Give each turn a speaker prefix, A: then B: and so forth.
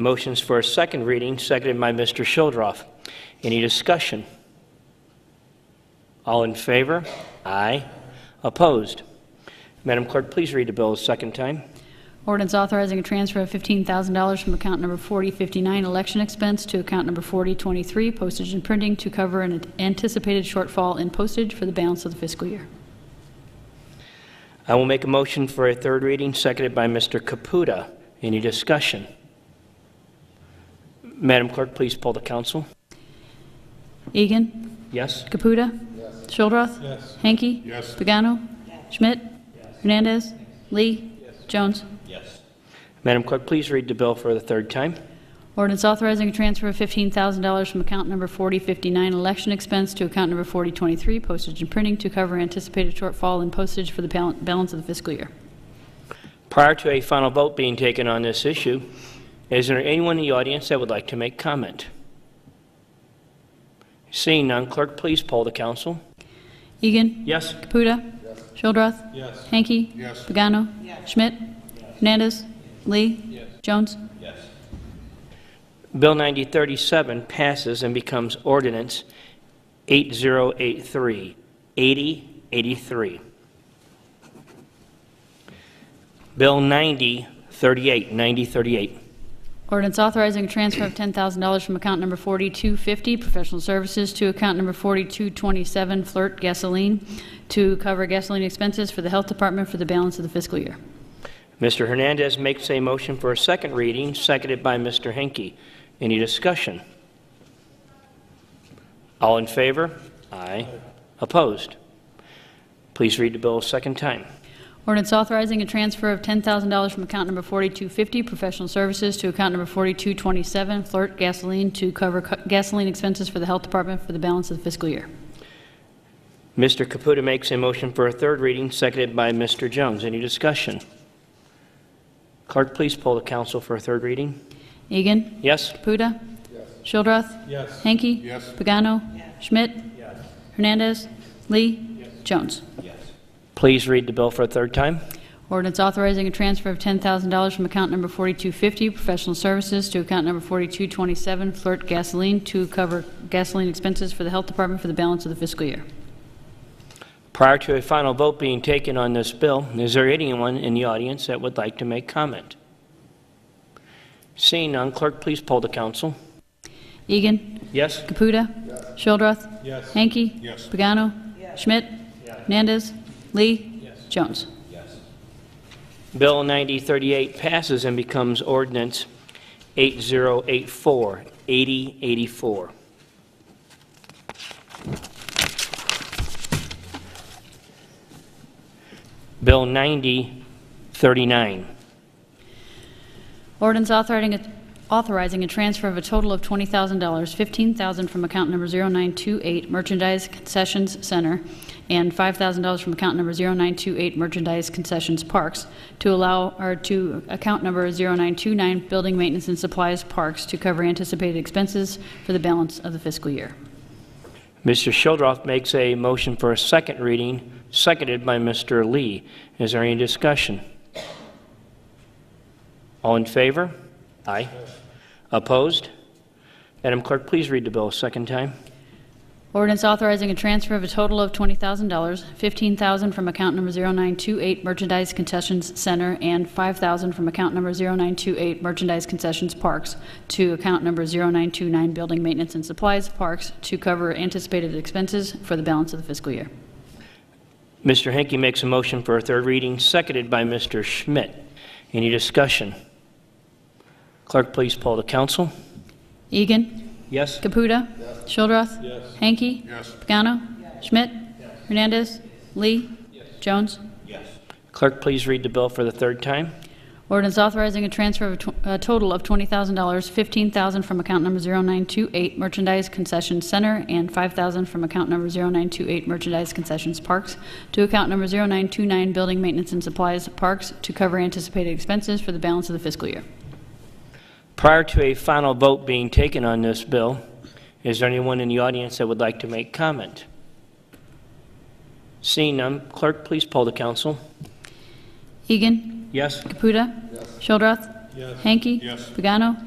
A: Motion's for a second reading, seconded by Mr. Shildroff. Any discussion? All in favor? Aye. Opposed? Madam Clerk, please read the bill a second time.
B: Ordinance authorizing a transfer of $15,000 from account number 4059 election expense to account number 4023 postage and printing to cover an anticipated shortfall in postage for the balance of the fiscal year.
A: I will make a motion for a third reading, seconded by Mr. Caputa. Any discussion? Madam Clerk, please poll the council.
B: Egan.
A: Yes?
B: Caputa. Yes. Shildroth. Yes. Hanky. Yes. Pagano. Schmidt. Hernandez. Lee. Jones.
A: Madam Clerk, please read the bill for the third time.
B: Ordinance authorizing a transfer of $15,000 from account number 4059 election expense to account number 4023 postage and printing to cover anticipated shortfall in postage for the bal- balance of the fiscal year.
A: Prior to a final vote being taken on this issue, is there anyone in the audience that would like to make comment? Seeing none, clerk, please poll the council.
B: Egan.
A: Yes?
B: Caputa. Shildroth. Hanky. Pagano. Schmidt. Hernandez. Lee. Jones.
A: Bill 9037 passes and becomes ordinance 8083, 8083. Bill 9038, 9038.
B: Ordinance authorizing a transfer of $10,000 from account number 4250 professional services to account number 4227 flirt gasoline to cover gasoline expenses for the health department for the balance of the fiscal year.
A: Mr. Hernandez makes a motion for a second reading, seconded by Mr. Henke. Any discussion? All in favor? Aye. Opposed? Please read the bill a second time.
B: Ordinance authorizing a transfer of $10,000 from account number 4250 professional services to account number 4227 flirt gasoline to cover cu- gasoline expenses for the health department for the balance of the fiscal year.
A: Mr. Caputa makes a motion for a third reading, seconded by Mr. Jones. Any discussion? Clerk, please poll the council for a third reading.
B: Egan.
A: Yes?
B: Caputa. Shildroth.
C: Yes.
B: Hanky.
C: Yes.
B: Pagano. Schmidt. Hernandez. Lee. Jones.
A: Please read the bill for a third time.
B: Ordinance authorizing a transfer of $10,000 from account number 4250 professional services to account number 4227 flirt gasoline to cover gasoline expenses for the health department for the balance of the fiscal year.
A: Prior to a final vote being taken on this bill, is there anyone in the audience that would like to make comment? Seeing none, clerk, please poll the council.
B: Egan.
A: Yes?
B: Caputa. Shildroth.
C: Yes.
B: Hanky.
C: Yes.
B: Pagano. Schmidt. Hernandez. Lee. Jones.
A: Bill 9038 passes and becomes ordinance 8084, 8084. Bill 9039.
B: Ordinance authorizing a, authorizing a transfer of a total of $20,000, $15,000 from account number 0928 Merchandise Concessions Center, and $5,000 from account number 0928 Merchandise Concessions Parks, to allow, or to account number 0929 Building Maintenance and Supplies Parks to cover anticipated expenses for the balance of the fiscal year.
A: Mr. Shildroff makes a motion for a second reading, seconded by Mr. Lee. Is there any discussion? All in favor? Aye. Opposed? Madam Clerk, please read the bill a second time.
B: Ordinance authorizing a transfer of a total of $20,000, $15,000 from account number 0928 Merchandise Concessions Center and $5,000 from account number 0928 Merchandise Concessions Parks to account number 0929 Building Maintenance and Supplies Parks to cover anticipated expenses for the balance of the fiscal year.
A: Mr. Henke makes a motion for a third reading, seconded by Mr. Schmidt. Any discussion? Clerk, please poll the council.
B: Egan.
A: Yes?
B: Caputa. Shildroth.
C: Yes.
B: Hanky.
C: Yes.
B: Pagano. Schmidt. Hernandez. Lee. Jones.
A: Clerk, please read the bill for the third time.
B: Ordinance authorizing a transfer of a tw- a total of $20,000, $15,000 from account number 0928 Merchandise Concession Center and $5,000 from account number 0928 Merchandise Concessions Parks to account number 0929 Building Maintenance and Supplies Parks to cover anticipated expenses for the balance of the fiscal year.
A: Prior to a final vote being taken on this bill, is there anyone in the audience that would like to make comment? Seeing none, clerk, please poll the council.
B: Egan.
A: Yes?
B: Caputa. Shildroth.
C: Yes.
B: Hanky.
C: Yes.
B: Pagano.